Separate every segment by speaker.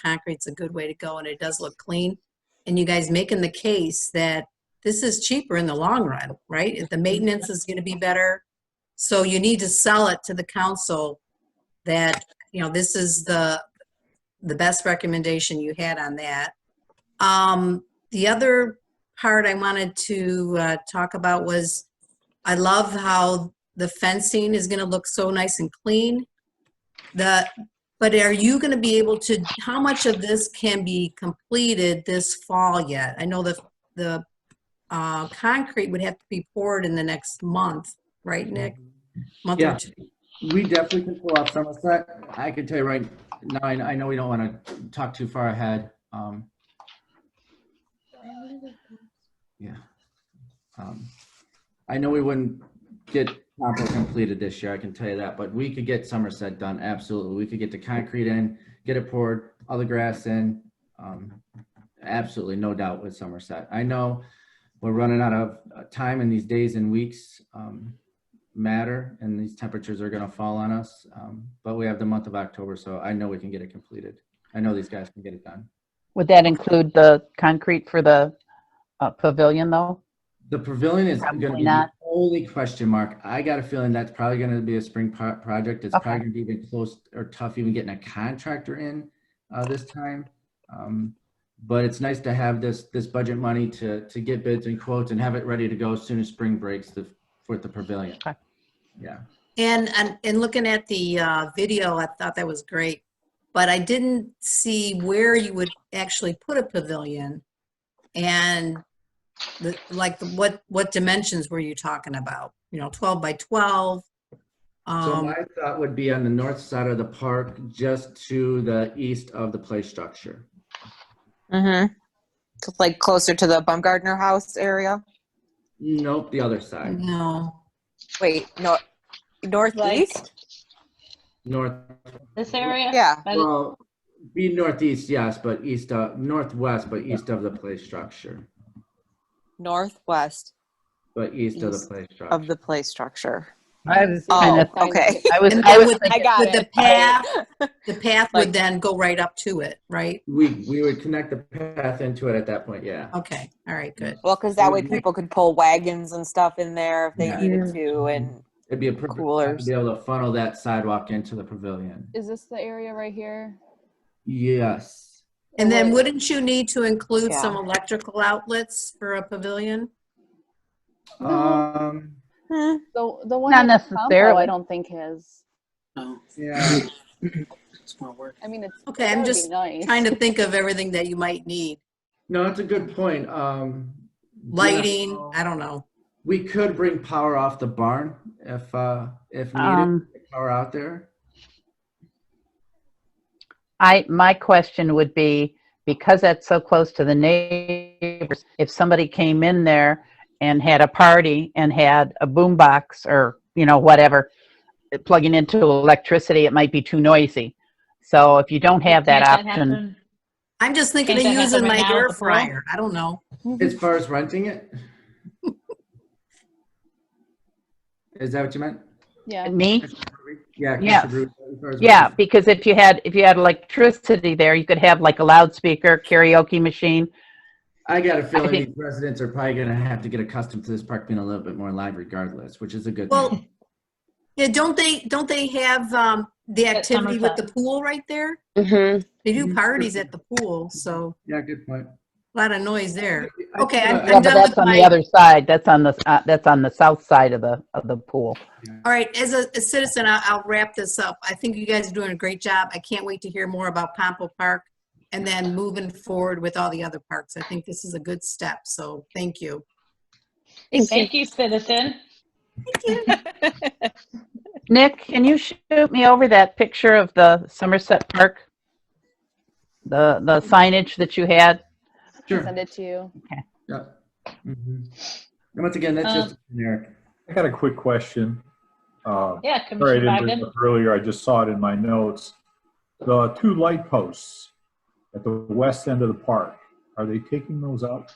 Speaker 1: concrete's a good way to go and it does look clean. And you guys making the case that this is cheaper in the long run, right? If The maintenance is gonna be better. So you need to sell it to the council that, you know, this is the, the best recommendation you had on that. Um, the other part I wanted to, uh, talk about was I love how the fencing is gonna look so nice and clean. The, but are you going to be able to, how much of this can be completed this fall yet? I know the, the uh, concrete would have to be poured in the next month, right, Nick? Month or
Speaker 2: Yeah.
Speaker 1: two.
Speaker 2: We definitely can pull off Somerset. I can tell you right now, I, I know we don't want to talk too far ahead. Um, yeah. Um, I know we wouldn't get Campo completed this year, I can tell you that, but we could get Somerset done, absolutely. We could get the concrete in, get it poured, all the grass in. Um, absolutely, no doubt with Somerset. I know we're running out of uh, time in these days and weeks. Um, matter and these temperatures are going to fall on us. Um, but we have the month of October, so I know we can get it completed. I know these guys can get it done.
Speaker 3: Would that include the concrete for the uh, pavilion, though?
Speaker 2: The pavilion is going to
Speaker 3: Probably
Speaker 2: be
Speaker 3: not.
Speaker 2: the only question mark. I got a feeling that's probably going to be a spring pro- project. It's
Speaker 3: Okay.
Speaker 2: probably going to be even close or tough even getting a contractor in uh, this time. Um, but it's nice to have this this budget money to to get bids and quotes and have it ready to go as soon as spring breaks the, for the pavilion.
Speaker 3: Okay.
Speaker 2: Yeah.
Speaker 1: And, and, and looking at the uh, video, I thought that was great, but I didn't see where you would actually put a pavilion. And the, like, the- what, what dimensions were you talking about? You know, 12 by 12?
Speaker 2: So
Speaker 1: Um,
Speaker 2: my thought would be on the north side of the park, just to the east of the play structure.
Speaker 4: Mm-hmm. Like closer to the Baumgartner House area.
Speaker 2: Nope, the other side,
Speaker 1: No.
Speaker 4: Wait, no, northeast.
Speaker 2: north,
Speaker 5: This area?
Speaker 4: Yeah.
Speaker 5: By the-
Speaker 2: well, be northeast, yes, but east of, northwest, but east of the play structure,
Speaker 4: northwest
Speaker 2: but east of the
Speaker 4: East
Speaker 2: play structure.
Speaker 4: of the play structure.
Speaker 3: I was
Speaker 4: Oh,
Speaker 3: kind of,
Speaker 4: okay.
Speaker 3: I was,
Speaker 1: And then
Speaker 3: I was
Speaker 1: with,
Speaker 3: thinking,
Speaker 4: I got
Speaker 1: with the
Speaker 4: it.
Speaker 1: path, the path
Speaker 4: Like-
Speaker 1: would then go right up to it, right?
Speaker 2: We, we would connect the path into it at that point, yeah.
Speaker 1: Okay, all right, good.
Speaker 4: Well, because that way
Speaker 1: Mm-hmm.
Speaker 4: people could pull wagons and stuff in there if they
Speaker 2: Yeah.
Speaker 4: needed to, and
Speaker 2: It'd be a perfect, time to
Speaker 4: Coolers.
Speaker 2: be able to funnel that sidewalk into the pavilion.
Speaker 6: Is this the area right here?
Speaker 2: Yes,
Speaker 1: And then
Speaker 6: Like,
Speaker 1: wouldn't you need to include
Speaker 4: Yeah.
Speaker 1: some electrical outlets for a pavilion?
Speaker 2: um,
Speaker 4: Hmm,
Speaker 6: The, the one.
Speaker 3: Not
Speaker 6: in Campo,
Speaker 3: necessarily.
Speaker 6: I don't think has,
Speaker 7: No,
Speaker 2: yeah.
Speaker 7: it's not working.
Speaker 6: I mean, it's.
Speaker 1: Okay, I'm just trying to think of everything that you might need.
Speaker 2: No, that's a good point. Um,
Speaker 1: Lighting,
Speaker 2: yeah.
Speaker 1: I don't know.
Speaker 2: We could bring power off the barn if, uh, if needed,
Speaker 3: um,
Speaker 2: power out there.
Speaker 3: I, my question would be, because that's so close to the neighbors, if somebody came in there and had a party and had a boombox or, you know, whatever, plugging into electricity, it might be too noisy. So if you don't have that
Speaker 5: Can't
Speaker 3: option,
Speaker 5: happen?
Speaker 1: I'm just thinking of
Speaker 5: Can't that
Speaker 1: using
Speaker 5: happen
Speaker 1: my
Speaker 5: right now
Speaker 1: air
Speaker 5: with the pool?
Speaker 1: fryer. I don't know.
Speaker 2: As far as renting it? Is that what you meant?
Speaker 6: Yeah,
Speaker 3: me?
Speaker 2: Yeah.
Speaker 3: Yes.
Speaker 2: Commissioner Bruce, as far as
Speaker 3: Yeah,
Speaker 2: renting-
Speaker 3: because if you had, if you had electricity there, you could have like a loudspeaker, karaoke machine.
Speaker 2: I got a
Speaker 3: I
Speaker 2: feeling
Speaker 3: think-
Speaker 2: these residents are probably gonna have to get accustomed to this park being a little bit more live regardless, which is a good thing.
Speaker 1: Well, yeah, don't they, don't they have, um, the
Speaker 5: At
Speaker 1: activity with the pool right there?
Speaker 4: Mm-hmm.
Speaker 1: They do
Speaker 2: Mhm.
Speaker 1: parties at the pool, so
Speaker 2: Yeah, good point.
Speaker 1: a
Speaker 2: Uh,
Speaker 1: lot of noise there.
Speaker 2: I-
Speaker 1: Okay,
Speaker 2: I-
Speaker 1: I'm-
Speaker 3: Yeah,
Speaker 1: I'm
Speaker 3: but
Speaker 1: done
Speaker 3: that's
Speaker 1: with
Speaker 3: on
Speaker 1: my-
Speaker 3: the other side. That's on the, uh, that's on the south side of the, of the pool.
Speaker 1: All right, as a a citizen, I'll, I'll wrap this up. I think you guys are doing a great job. I can't wait to hear more about Pompo Park and then moving forward with all the other parks. I think this is a good step, so thank you.
Speaker 5: Thank you, citizen.
Speaker 3: Nick, can you shoot me over that picture of the Somerset Park? The, the signage that you had?
Speaker 2: Sure.
Speaker 6: send it to you.
Speaker 2: Yeah. Mhm. And once again, that's
Speaker 1: Um,
Speaker 2: just generic.
Speaker 8: I got a quick question. Uh,
Speaker 5: Yeah,
Speaker 8: Sorry, I
Speaker 5: Commissioner
Speaker 8: didn't bring it
Speaker 5: Bogdan.
Speaker 8: up earlier, I just saw it in my notes. The two light posts at the west end of the park, are they taking those out?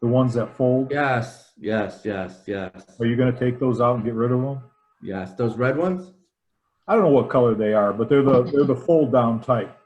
Speaker 8: The ones that fold?
Speaker 2: Yes, yes, yes, yes,
Speaker 8: Are you gonna take those out and get rid of them?
Speaker 2: yes. Those red ones?
Speaker 8: I don't know what color they are, but they're the, they're the fold down type.